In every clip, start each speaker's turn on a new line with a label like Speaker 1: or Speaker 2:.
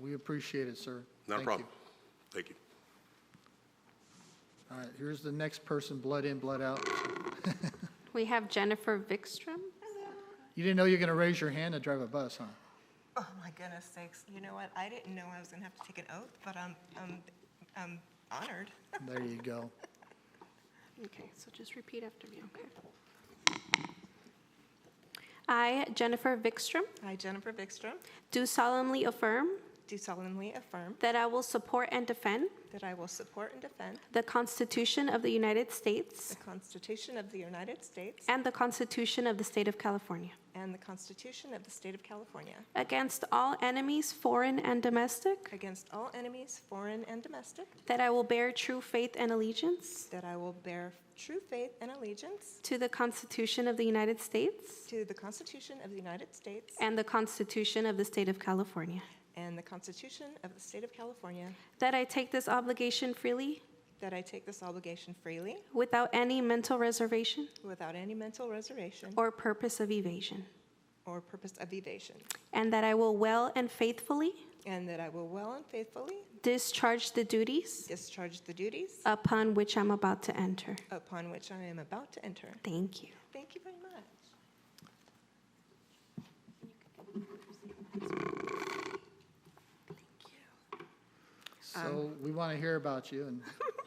Speaker 1: We appreciate it, sir. Thank
Speaker 2: Not a
Speaker 1: you.
Speaker 2: problem. Thank you.
Speaker 1: All right, here's the next person, blood in, blood out.
Speaker 3: We have Jennifer Vikstrom.
Speaker 1: You didn't know you were going to raise your hand to drive a bus, huh?
Speaker 4: Oh, my goodness sakes. You know what? I didn't know I was going to have to take an oath, but I'm, I'm, I'm honored.
Speaker 1: There you go.
Speaker 3: Okay, so just repeat after me, okay? I, Jennifer Vikstrom,
Speaker 4: I, Jennifer Bickstrom,
Speaker 3: do solemnly affirm
Speaker 4: do solemnly affirm
Speaker 3: that I will support and defend
Speaker 4: that I will support and defend
Speaker 3: the Constitution of the United
Speaker 4: the
Speaker 3: States
Speaker 4: Constitution of the United States
Speaker 3: and the Constitution of the State of California
Speaker 4: and the Constitution of the State of California
Speaker 3: against all enemies, foreign and domestic,
Speaker 4: against all enemies, foreign and domestic,
Speaker 3: that I will bear true faith and allegiance
Speaker 4: that I will bear true faith and allegiance
Speaker 3: to the Constitution of the United States
Speaker 4: to the Constitution of the United States
Speaker 3: and the Constitution of the State of California,
Speaker 4: and the Constitution of the State of California,
Speaker 3: that I take this obligation freely
Speaker 4: that I take this obligation freely
Speaker 3: without any mental reservation
Speaker 4: without any mental reservation
Speaker 3: or purpose of evasion,
Speaker 4: or purpose of evasion,
Speaker 3: and that I will well and faithfully
Speaker 4: and that I will well and faithfully
Speaker 3: discharge the duties
Speaker 4: discharge the duties
Speaker 3: upon which I'm about to enter.
Speaker 4: upon which I am about to enter.
Speaker 3: Thank you.
Speaker 4: Thank you very much.
Speaker 1: So we want to hear about you and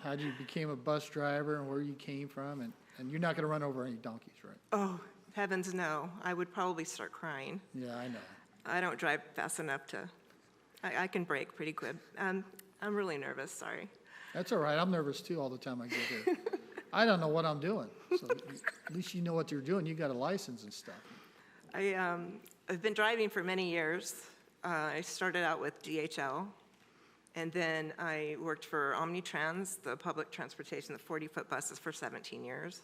Speaker 1: how you became a bus driver and where you came from, and, and you're not going to run over any donkeys, right?
Speaker 4: Oh, heavens no. I would probably start crying.
Speaker 1: Yeah, I know.
Speaker 4: I don't drive fast enough to, I, I can brake pretty quick. Um, I'm really nervous, sorry.
Speaker 1: That's all right. I'm nervous too all the time I get there. I don't know what I'm doing. So at least you know what you're doing. You got a license and stuff.
Speaker 4: I, um, I've been driving for many years. Uh, I started out with DHL, and then I worked for Omnitrans, the public transportation, the 40-foot buses for 17 years.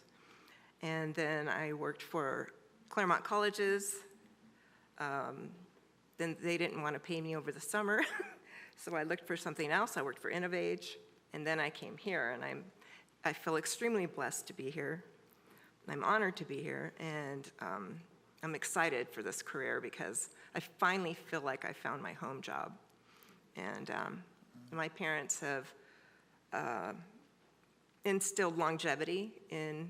Speaker 4: And then I worked for Claremont Colleges. Um, Then they didn't want to pay me over the summer, so I looked for something else. I worked for Innovage, and then I came here, and I'm, I feel extremely blessed to be here. I'm honored to be here, and um, I'm excited for this career because I finally feel like I found my home job. And um, my parents have uh, instilled longevity in,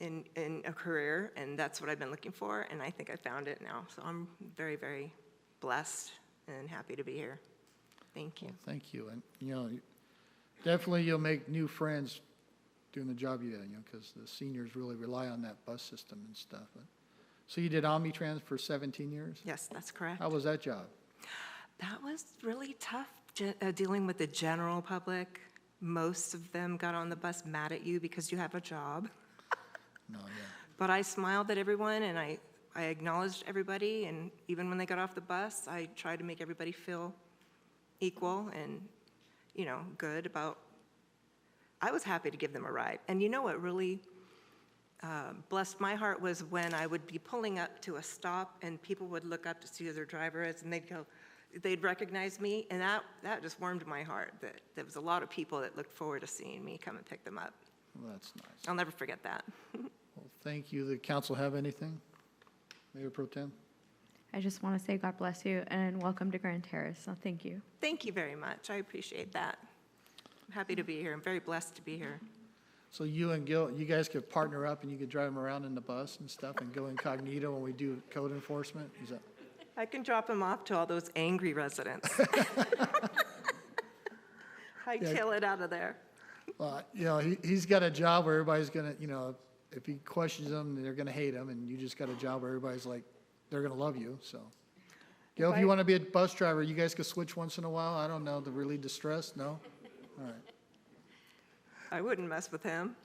Speaker 4: in, in a career, and that's what I've been looking for, and I think I found it now. So I'm very, very blessed and happy to be here. Thank you.
Speaker 1: Thank you. And, you know, you- definitely you'll make new friends doing the job you had, you know, because the seniors really rely on that bus system and stuff. But- So you did Omnitrans for 17 years?
Speaker 4: Yes, that's correct.
Speaker 1: How was that job?
Speaker 4: That was really tough, ge- uh, dealing with the general public. Most of them got on the bus mad at you because you have a job.
Speaker 1: No, yeah.
Speaker 4: But I smiled at everyone and I, I acknowledged everybody. And even when they got off the bus, I tried to make everybody feel equal and, you know, good about. I was happy to give them a ride. And you know what really uh, blessed my heart was when I would be pulling up to a stop and people would look up to see who their driver is and they'd go, they'd recognize me. And that, that just warmed my heart that there was a lot of people that looked forward to seeing me come and pick them up.
Speaker 1: Well, that's nice.
Speaker 4: I'll never forget that.
Speaker 1: Well, thank you. The council have anything? Mayor Pro Tem?
Speaker 5: I just want to say God bless you and welcome to Grand Terrace. So thank you.
Speaker 4: Thank you very much. I appreciate that. I'm happy to be here. I'm very blessed to be here.
Speaker 1: So you and Gil, you guys could partner up and you could drive them around in the bus and stuff and go incognito when we do code enforcement? Is that,
Speaker 4: I can drop him off to all those angry residents. I kill it out of there.
Speaker 1: well, you know, he, he's got a job where everybody's gonna, you know, if he questions them, they're gonna hate him, and you just got a job where everybody's like, they're gonna love you, so. Gil, if
Speaker 4: I-
Speaker 1: you wanna be a bus driver, you guys could switch once in a while, I don't know, to relieve the stress, no?
Speaker 4: I wouldn't mess with him.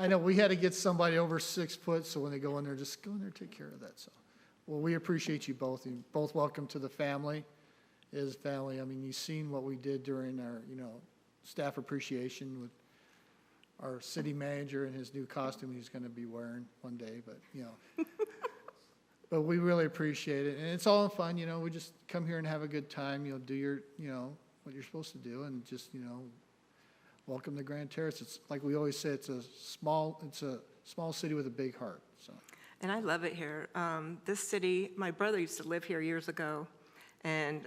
Speaker 1: I know, we had to get somebody over six foot, so when they go in there, just go in there, take care of that, so. Well, we appreciate you both, you both welcome to the family, It is family, I mean, you've seen what we did during our, you know, staff appreciation with our city manager and his new costume he's gonna be wearing one day, but, you know. But we really appreciate it, and it's all in fun, you know, we just come here and have a good time, you know, do your, you know, what you're supposed to do, and just, you know, welcome to Grand Terrace. It's like we always say, it's a small, it's a small city with a big heart, so.
Speaker 4: And I love it here. Um, This city, my brother used to live here years ago, and